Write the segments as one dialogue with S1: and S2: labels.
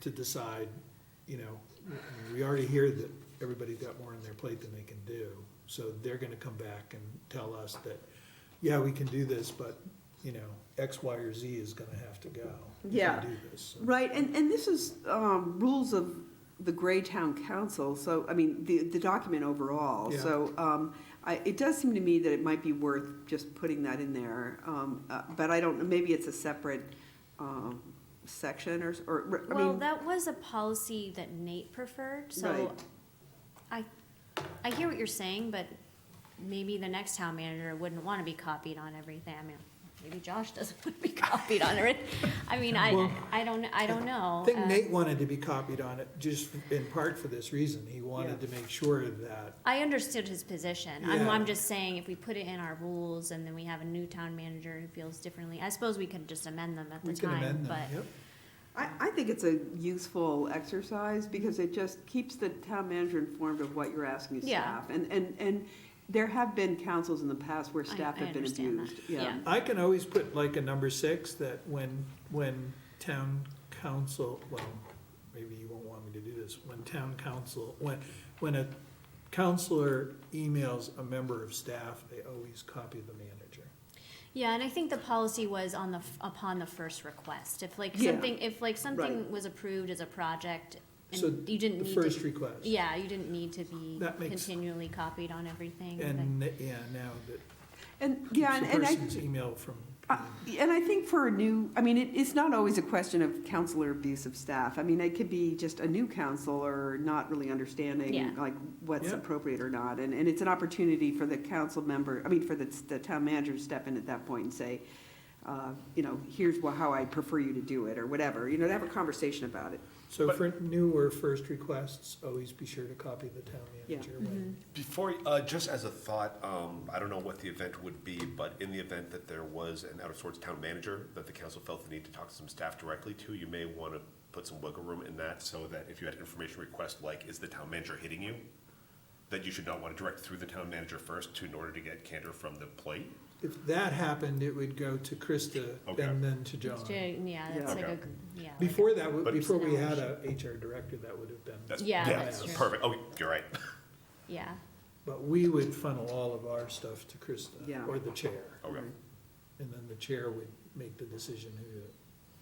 S1: to decide, you know, we already hear that everybody's got more on their plate than they can do. So they're gonna come back and tell us that, yeah, we can do this, but, you know, X, Y, or Z is gonna have to go. if we
S2: Yeah.
S1: Do this. So,
S2: Right, and, and this is um, rules of the Gray Town Council, so, I mean, the, the document overall.
S1: Yeah.
S2: So um, I, it does seem to me that it might be worth just putting that in there, um, uh, but I don't, know. maybe it's a separate um, section or, s- or, I
S3: Well,
S2: mean,
S3: that was a policy that Nate preferred, so
S2: Right.
S3: I, I hear what you're saying, but maybe the next town manager wouldn't want to be copied on everything. I mean, maybe Josh doesn't want to be copied on it. I mean, I,
S1: Well,
S3: I don't, I don't know.
S1: I think
S3: Uh,
S1: Nate wanted to be copied on it, just in part for this reason. He wanted
S2: Yeah.
S1: to make sure that,
S3: I understood his position. I'm, I'm
S1: Yeah.
S3: just saying if we put it in our rules and then we have a new town manager who feels differently, I suppose we could just amend them at the
S1: we can
S3: time,
S1: amend them,
S3: but.
S1: yep.
S2: I, I think it's a useful exercise because it just keeps the town manager informed of what you're asking
S3: Yeah.
S2: staff. And, and, and there have been councils in the past where
S3: I-
S2: staff
S3: I
S2: have been
S3: understand that.
S2: abused,
S3: Yeah.
S2: yeah.
S1: I can always put like a number six that when, when town council, well, maybe you won't want me to do this, when town council, when, when a counselor emails a member of staff, they always copy the manager.
S3: Yeah, and I think the policy was on the, f- upon the first request. If like
S2: Yeah.
S3: something, if like something
S2: Right.
S3: was approved as a project
S1: So
S3: and you didn't
S1: The
S3: need
S1: first
S3: to,
S1: request.
S3: yeah, you didn't need to be
S1: That makes-
S3: continually copied on everything.
S1: And, yeah, now that
S2: And, yeah, and
S1: keeps the
S2: and I.
S1: person's email from,
S2: Uh, And I think for a new, I mean, it, it's not always a question of counselor abuse of staff. I mean, it could be just a new counselor not really
S3: Yeah.
S2: understanding, like, what's
S1: Yeah.
S2: appropriate or not. And, and it's an opportunity for the council member, I mean, for the, the town manager to step in at that point and say, uh, you know, here's wha- how I prefer you to do it, or whatever, you know, to have a conversation about it.
S1: so
S4: But-
S1: for newer first requests, always be sure to copy the town
S2: Yeah.
S1: manager
S3: Mm-hmm.
S1: when,
S4: Before, uh, just as a thought, um, I don't know what the event would be, but in the event that there was an out of sorts town manager that the council felt the need to talk to some staff directly to, you may want to put some wiggle room in that so that if you had an information request like, is the town manager hitting you? That you should not want to direct through the town manager first to, in order to get candor from the plate.
S1: if that happened, it would go to Krista
S4: Okay.
S1: and then to John.
S3: It's ju- Yeah, that's
S2: Yeah.
S3: like a,
S4: Okay.
S3: yeah. like-
S1: Before that, w-
S4: But-
S1: before we had a HR director, that would have been,
S4: That's,
S3: Yeah,
S4: yeah,
S3: that's true.
S4: perfect. Oh, you're right.
S3: Yeah,
S1: but we would funnel all of our stuff to
S2: Yeah.
S1: Krista, or the chair.
S4: Okay,
S3: Mm-hmm.
S1: And then the chair would make the decision who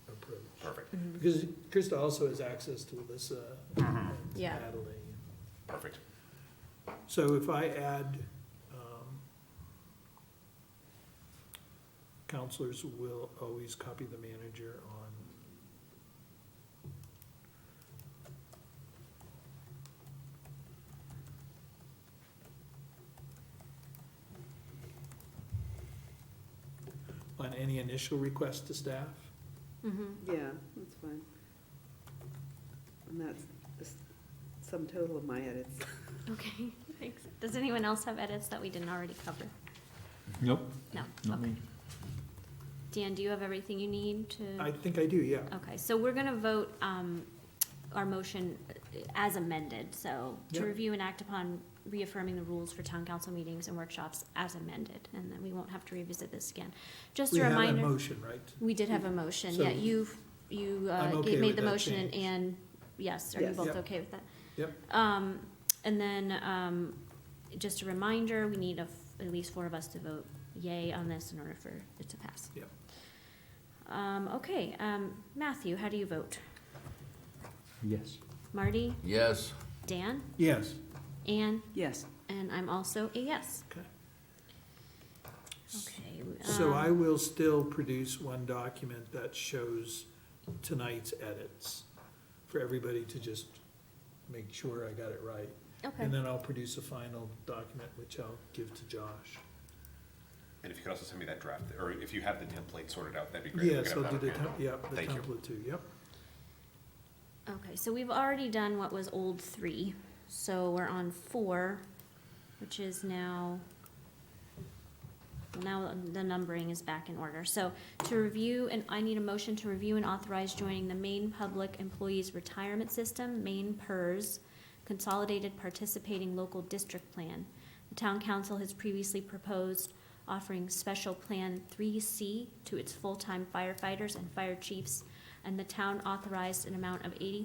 S1: to approach.
S4: perfect,
S1: Because Krista also has access to Alyssa and
S3: Mm-hmm. Yeah.
S1: Natalie.
S4: perfect.
S1: So if I add, um, counselors will always copy the manager on on any initial request to staff?
S3: mhm.
S2: Yeah, that's fine. And that's the s- sum total of my edits.
S3: Okay, thanks. Does anyone else have edits that we didn't already cover?
S5: Nope,
S3: No,
S5: not
S3: okay.
S5: me.
S3: Dan, do you have everything you need to?
S1: I think I do, yeah.
S3: Okay, so we're gonna vote, um, our motion uh, as amended, so to
S1: Yep.
S3: review and act upon reaffirming the rules for town council meetings and workshops as amended, and then we won't have to revisit this again. Just
S1: We
S3: a
S1: have a
S3: reminder,
S1: motion, right?
S3: we did have a motion,
S1: Mm-hmm. So-
S3: yeah, you, you, uh,
S1: I'm
S3: you
S1: okay
S3: made
S1: with
S3: the
S1: that
S3: motion and,
S1: change.
S3: and, yes, are you
S2: Yes.
S3: both
S1: Yep.
S3: okay with that?
S1: Yep.
S3: Um, and then, um, just a reminder, we need a f at least four of us to vote yay on this in order for it to pass.
S1: Yep.
S3: Um, okay, um, Matthew, how do you vote?
S5: Yes.
S3: Marty,
S6: Yes.
S3: Dan,
S1: Yes.
S3: Anne,
S2: Yes.
S3: and I'm also a yes.
S1: Okay.
S3: Okay.
S1: So
S3: um,
S1: I will still produce one document that shows tonight's edits for everybody to just make sure I got it right.
S3: Okay,
S1: And then I'll produce a final document, which I'll give to Josh.
S4: And if you could also send me that draft, or if you have the template sorted out, that'd be great. We
S1: Yes,
S4: could
S1: I'll
S4: have
S1: do
S4: that
S1: the,
S4: on hand.
S1: tem- yep, the
S4: Thank you.
S1: template too, yep.
S3: okay, so we've already done what was old three, so we're on four, which is now, now the numbering is back in order. So to review, and I need a motion to review and authorize joining the Maine Public Employees Retirement System, Maine PERS, Consolidated Participating Local District Plan. The town council has previously proposed offering special plan three C to its full-time firefighters and fire chiefs, and the town authorized an amount of eighty